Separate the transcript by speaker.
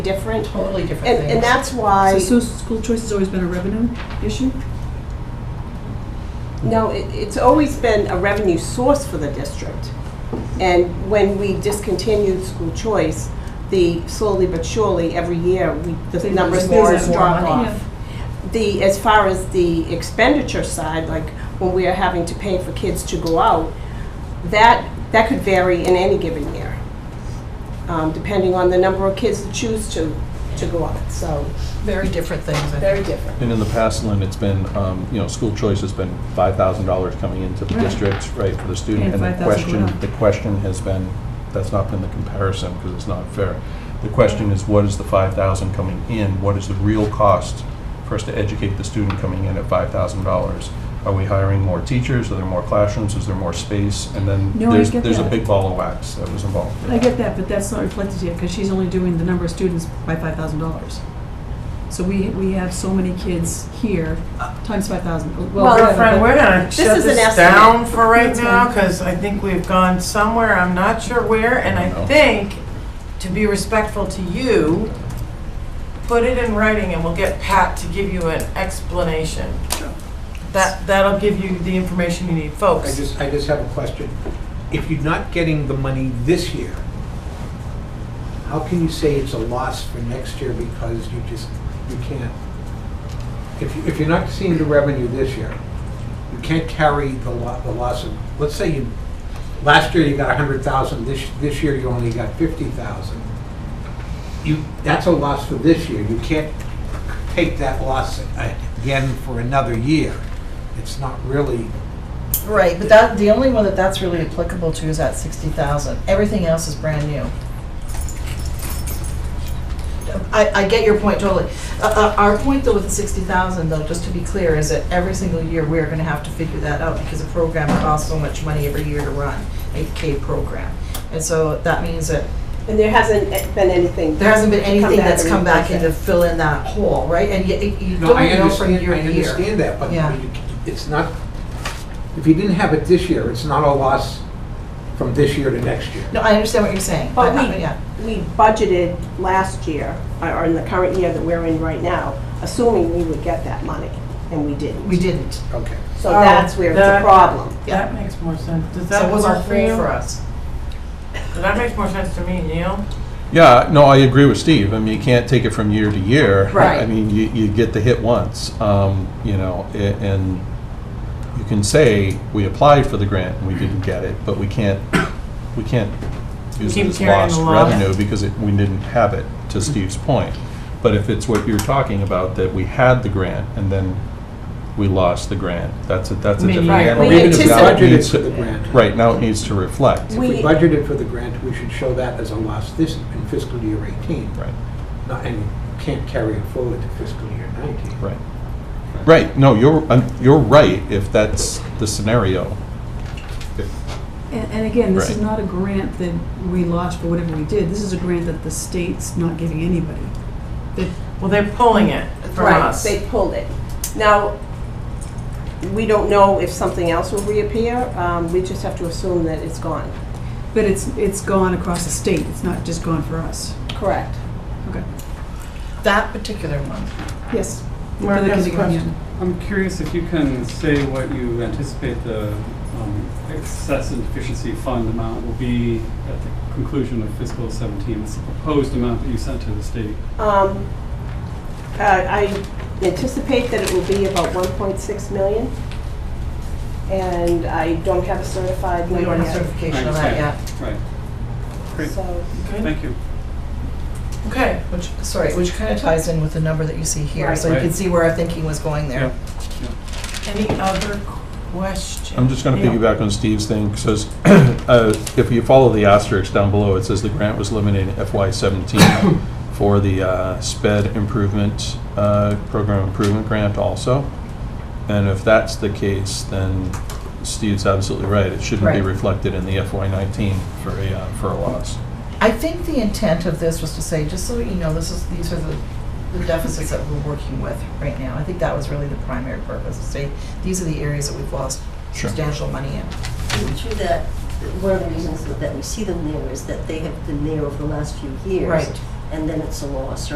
Speaker 1: different.
Speaker 2: Totally different
Speaker 1: And, and
Speaker 2: things.
Speaker 1: that's why,
Speaker 3: So, so school choice has always been a revenue issue?
Speaker 1: no, it, it's always been a revenue source for the district. And when we discontinued school choice, the slowly but surely, every year, we, the
Speaker 3: There's
Speaker 1: numbers
Speaker 2: more
Speaker 1: more
Speaker 2: and
Speaker 1: drop
Speaker 2: more money.
Speaker 1: off. The, as far as the expenditure side, like when we are having to pay for kids to go out, that, that could vary in any given year, um, depending on the number of kids that choose to, to go out, so,
Speaker 2: Very different things. I
Speaker 1: very
Speaker 2: think.
Speaker 1: different.
Speaker 4: And in the past, Lynn, it's been, um, you know, school choice has been $5,000 coming into the
Speaker 3: Right.
Speaker 4: district, right, for the student.
Speaker 3: And
Speaker 4: the
Speaker 3: 5,000
Speaker 4: question,
Speaker 3: going out.
Speaker 4: the question has been, that's not been the comparison, because it's not fair. The question is, what is the 5,000 coming in? What is the real cost for us to educate the student coming in at $5,000? Are we hiring more teachers? Are there more classrooms? Is there more space? And then
Speaker 3: No, I
Speaker 4: there's,
Speaker 3: get
Speaker 4: there's a
Speaker 3: that.
Speaker 4: big ball of wax that was involved.
Speaker 3: I get that, but that's not reflected here, because she's only doing the number of students by five thousand dollars. So we, we have so many kids here, times five thousand.
Speaker 1: Well,
Speaker 5: Well, friend, we're gonna shut
Speaker 1: is an
Speaker 5: this
Speaker 1: estimate.
Speaker 5: down for right
Speaker 3: That's
Speaker 5: now,
Speaker 3: fine.
Speaker 5: because I think we've gone somewhere, I'm not sure where, and I
Speaker 4: No.
Speaker 5: think, to be respectful to you, put it in writing and we'll get Pat to give you an explanation. That, that'll give you the information you need,
Speaker 6: I
Speaker 5: folks.
Speaker 6: just, I just have a question. If you're not getting the money this year, how can you say it's a loss for next year because you just, you can't? If, you- if you're not seeing the revenue this year, you can't carry the lo, the loss of, let's say you, last year you got a hundred thousand, this, this year you only got fifty thousand. You, that's a loss for this year. You can't take that loss again for another year. It's not really
Speaker 2: Right, but that, the only one that that's really applicable to is that sixty thousand. Everything else is brand new. I, I get your point totally. Uh, uh, our point though with the sixty thousand though, just to be clear, is that every single year we're gonna have to figure that out because a program costs so much money every year to run, a K program. And so that means that
Speaker 1: And there hasn't been anything.
Speaker 2: there hasn't been
Speaker 1: to come
Speaker 2: anything
Speaker 1: back
Speaker 2: that's
Speaker 1: and
Speaker 2: come back in to
Speaker 1: replace
Speaker 2: fill in that hole, right? And you, you
Speaker 6: No, I
Speaker 2: don't know from
Speaker 6: understand,
Speaker 2: year to year.
Speaker 6: I understand that, but
Speaker 2: Yeah.
Speaker 6: you- it's not, if you didn't have it this year, it's not a loss from this year to next year.
Speaker 2: No, I understand what you're saying.
Speaker 1: But
Speaker 2: I- I-
Speaker 1: we-
Speaker 2: yeah.
Speaker 1: it. We budgeted last year, uh, or or in the current year that we're in right now, assuming we would get that money, and we didn't.
Speaker 2: We didn't.
Speaker 6: Okay.
Speaker 1: So that's where it's a
Speaker 5: That-
Speaker 1: problem.
Speaker 5: That makes more sense. Does
Speaker 2: So
Speaker 5: that
Speaker 2: it was a
Speaker 5: work for
Speaker 2: hole for
Speaker 5: you?
Speaker 2: us.
Speaker 5: That makes more sense to me, Neil.
Speaker 4: Yeah, no, I agree with Steve. I mean, you can't take it from year to year.
Speaker 2: Right.
Speaker 4: I mean, you, you get the hit once, um, you know, a- and you can say, we applied for the grant and we didn't get it, but we can't, we can't use it
Speaker 5: Keep
Speaker 4: as
Speaker 5: carrying
Speaker 4: lost
Speaker 5: the Mm-hmm. loss.
Speaker 4: revenue because it, we didn't have it, to Steve's point. But if it's what you're talking about, that we had the grant and then we lost the grant, that's a, that's a
Speaker 5: Maybe.
Speaker 4: different
Speaker 5: Right,
Speaker 4: animal.
Speaker 1: we
Speaker 4: Even if now it
Speaker 6: anticipated
Speaker 4: needs
Speaker 6: for
Speaker 4: to-
Speaker 6: the grant.
Speaker 4: Right, now it needs to reflect.
Speaker 6: If we
Speaker 1: We-
Speaker 6: budgeted for the grant, we should show that as a loss this, in fiscal year 18,
Speaker 4: Right.
Speaker 6: not, and can't carry it forward to fiscal year 19.
Speaker 4: Right. Right, no, you're, um, you're right, if that's the scenario.
Speaker 3: And, and again, this is
Speaker 4: Right.
Speaker 3: not a grant that we lost for whatever we did, this is a grant that the state's not giving anybody.
Speaker 5: Well, they're pulling it from
Speaker 1: Right,
Speaker 5: us.
Speaker 1: they pulled it. Now, we don't know if something else will reappear, um, we just have to assume that it's gone.
Speaker 3: But it's, it's gone across the state, it's not just gone for us.
Speaker 1: Correct.
Speaker 3: Okay,
Speaker 5: That particular one.
Speaker 3: yes.
Speaker 7: Mark
Speaker 3: Further
Speaker 7: has a
Speaker 3: continuing on.
Speaker 7: question. I'm curious if you can say what you anticipate the um, excess and deficiency fund amount will be at the conclusion of fiscal 17. It's the proposed amount that you sent to the state.
Speaker 1: Um, uh, I anticipate that it will be about 1.6 million, and I don't have a certified
Speaker 5: We
Speaker 1: number
Speaker 5: don't have
Speaker 1: yet.
Speaker 5: certification
Speaker 7: I
Speaker 5: of that yet.
Speaker 7: understand. Right. Great,
Speaker 1: So,
Speaker 5: Okay.
Speaker 7: thank you.
Speaker 5: Okay, which, sorry, which kind of ties in with the number that you see here, so you
Speaker 7: Right.
Speaker 5: can see where our thinking was going there.
Speaker 7: Yeah.
Speaker 5: Any other questions?
Speaker 4: I'm just gonna
Speaker 5: Yeah.
Speaker 4: piggyback on Steve's thing, says, uh, if you follow the asterisk down below, it says the grant was limited in FY seventeen for the, uh, sped improvement, uh, program improvement grant also. And if that's the case, then Steve's absolutely right, it shouldn't be
Speaker 5: Right.
Speaker 4: reflected in the FY nineteen for a, uh, for a loss.
Speaker 5: I think the intent of this was to say, just so you know, this is, these are the, the deficits that we're working with right now. I think that was really the primary purpose, to say, these are the areas that we've lost
Speaker 4: Sure.
Speaker 5: substantial money in.
Speaker 8: And Through that, one of the reasons that we see them there is that they have been there over the last few years.
Speaker 5: Right.
Speaker 8: and then it's a loss,